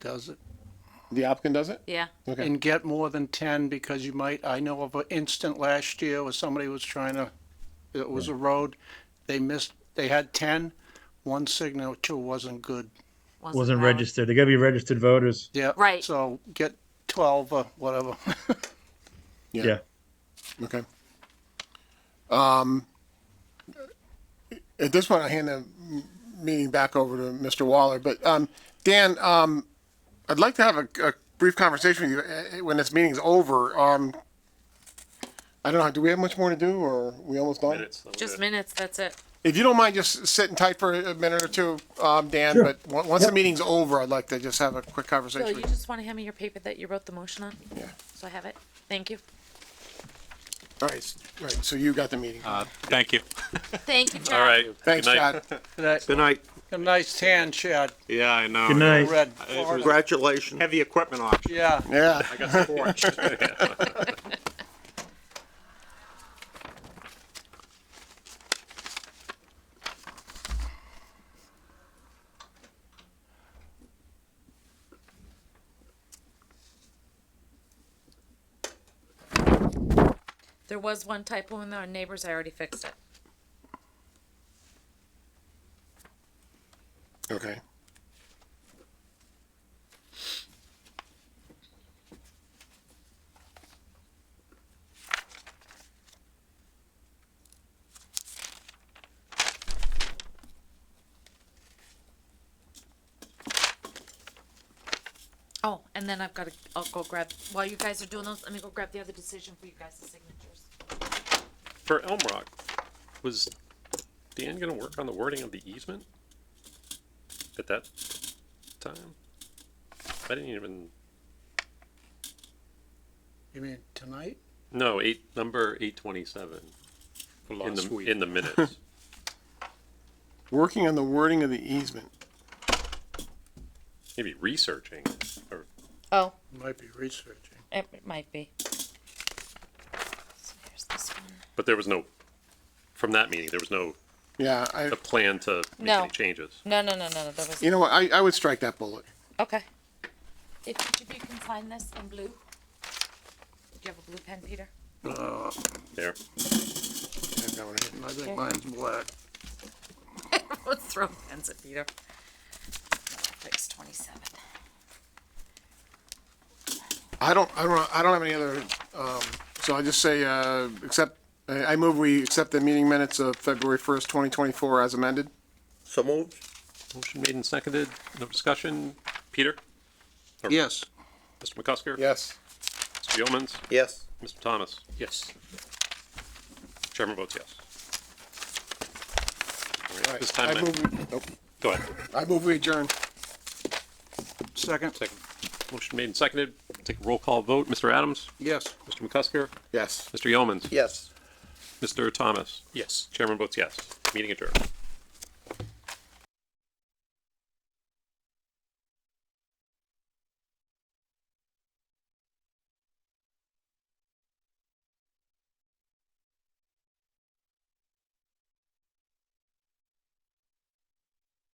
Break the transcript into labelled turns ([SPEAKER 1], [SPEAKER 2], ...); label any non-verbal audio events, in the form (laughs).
[SPEAKER 1] does it,
[SPEAKER 2] The applicant does it?
[SPEAKER 3] Yeah.
[SPEAKER 2] Okay.
[SPEAKER 1] and get more than ten, because you might, I know of an instant last year where somebody was trying to, it was a road, they missed, they had ten, one signature wasn't good,
[SPEAKER 4] wasn't
[SPEAKER 3] valid.
[SPEAKER 4] registered. They gotta be registered voters.
[SPEAKER 1] yeah.
[SPEAKER 3] Right.
[SPEAKER 1] So get twelve or whatever. (laughs)
[SPEAKER 4] Yeah.
[SPEAKER 2] Okay. Um, at this point, I hand the m- meeting back over to Mr. Waller, but, um, Dan, um, I'd like to have a, a brief conversation with you uh, when this meeting's over. Um, I don't know, do we have much more to do or are we almost done?
[SPEAKER 3] Just minutes, that's it.
[SPEAKER 2] If you don't mind just sitting tight for a minute or two, um, Dan,
[SPEAKER 4] Sure.
[SPEAKER 2] but on- once the
[SPEAKER 4] Yep.
[SPEAKER 2] meeting's over, I'd like to just have a quick
[SPEAKER 3] Bill,
[SPEAKER 2] conversation.
[SPEAKER 3] you
[SPEAKER 2] with you.
[SPEAKER 3] just want to hand me your paper that you wrote the motion on?
[SPEAKER 2] Yeah.
[SPEAKER 3] So I have it. Thank you.
[SPEAKER 2] All right, s- right, so you got the meeting.
[SPEAKER 5] Thank
[SPEAKER 3] (laughs)
[SPEAKER 5] you.
[SPEAKER 3] Thank you, Chad.
[SPEAKER 5] All right.
[SPEAKER 2] Thanks,
[SPEAKER 5] Uh, Good night.
[SPEAKER 2] Chad.
[SPEAKER 5] (laughs)
[SPEAKER 1] That-
[SPEAKER 6] Good night.
[SPEAKER 1] A nice tan, Chad,
[SPEAKER 5] Yeah, I know.
[SPEAKER 4] Good night.
[SPEAKER 1] red. Florida.
[SPEAKER 6] Congratulations.
[SPEAKER 5] Heavy equipment auction.
[SPEAKER 1] Yeah,
[SPEAKER 2] Yeah.
[SPEAKER 5] I got scorched.
[SPEAKER 3] There was one typo in our neighbors, I already fixed it.
[SPEAKER 2] Okay.
[SPEAKER 3] Oh, and then I've got to, I'll go grab, while you guys are doing those, let me go grab the other decision for you guys' signatures.
[SPEAKER 7] For Elm Rock, was Dan gonna work on the wording of the easement? At that time? I didn't even,
[SPEAKER 1] you mean tonight?
[SPEAKER 7] no, eight, number eight twenty-seven. In
[SPEAKER 5] last
[SPEAKER 7] the,
[SPEAKER 5] week.
[SPEAKER 7] in the minutes.
[SPEAKER 2] Working on the wording of the easement.
[SPEAKER 7] Maybe researching, or,
[SPEAKER 3] Oh,
[SPEAKER 1] Might be researching.
[SPEAKER 3] it might be. So here's this one.
[SPEAKER 7] but there was no, from that meeting, there was no,
[SPEAKER 2] Yeah, I,
[SPEAKER 7] a plan to make
[SPEAKER 3] No.
[SPEAKER 7] any changes.
[SPEAKER 3] No, no, no, no, no, that was,
[SPEAKER 2] you know what, I, I would strike that bullet.
[SPEAKER 3] okay. If each of you can sign this in blue. Do you have a blue pen, Peter?
[SPEAKER 7] There,
[SPEAKER 2] I've got one here.
[SPEAKER 1] Uh, I think mine's black.
[SPEAKER 3] Let's (laughs) throw pens at Peter. Fix twenty-seven.
[SPEAKER 2] I don't, I don't, I don't have any other, um, so I just say, uh, accept, I, I move we accept the meeting minutes of February first, twenty twenty-four as amended.
[SPEAKER 6] So moved.
[SPEAKER 7] motion made and seconded, no discussion, Peter,
[SPEAKER 1] Yes.
[SPEAKER 7] Mr. McCusker?
[SPEAKER 2] Yes.
[SPEAKER 7] Mr. Yeomans,
[SPEAKER 6] Yes.
[SPEAKER 7] Mr. Thomas,
[SPEAKER 1] Yes.
[SPEAKER 7] chairman votes yes. All right,
[SPEAKER 2] All right.
[SPEAKER 7] This time,
[SPEAKER 2] I
[SPEAKER 7] I-
[SPEAKER 2] move, we- nope.
[SPEAKER 7] go ahead.
[SPEAKER 2] I move we adjourn.
[SPEAKER 1] Second?
[SPEAKER 7] Second. Motion made and seconded. Take a roll call vote. Mr. Adams,
[SPEAKER 1] Yes.
[SPEAKER 7] Mr. McCusker,
[SPEAKER 2] Yes.
[SPEAKER 7] Mr. Yeomans,
[SPEAKER 6] Yes.
[SPEAKER 7] Mr. Thomas.
[SPEAKER 5] Yes.
[SPEAKER 7] Chairman votes yes. Meeting adjourned.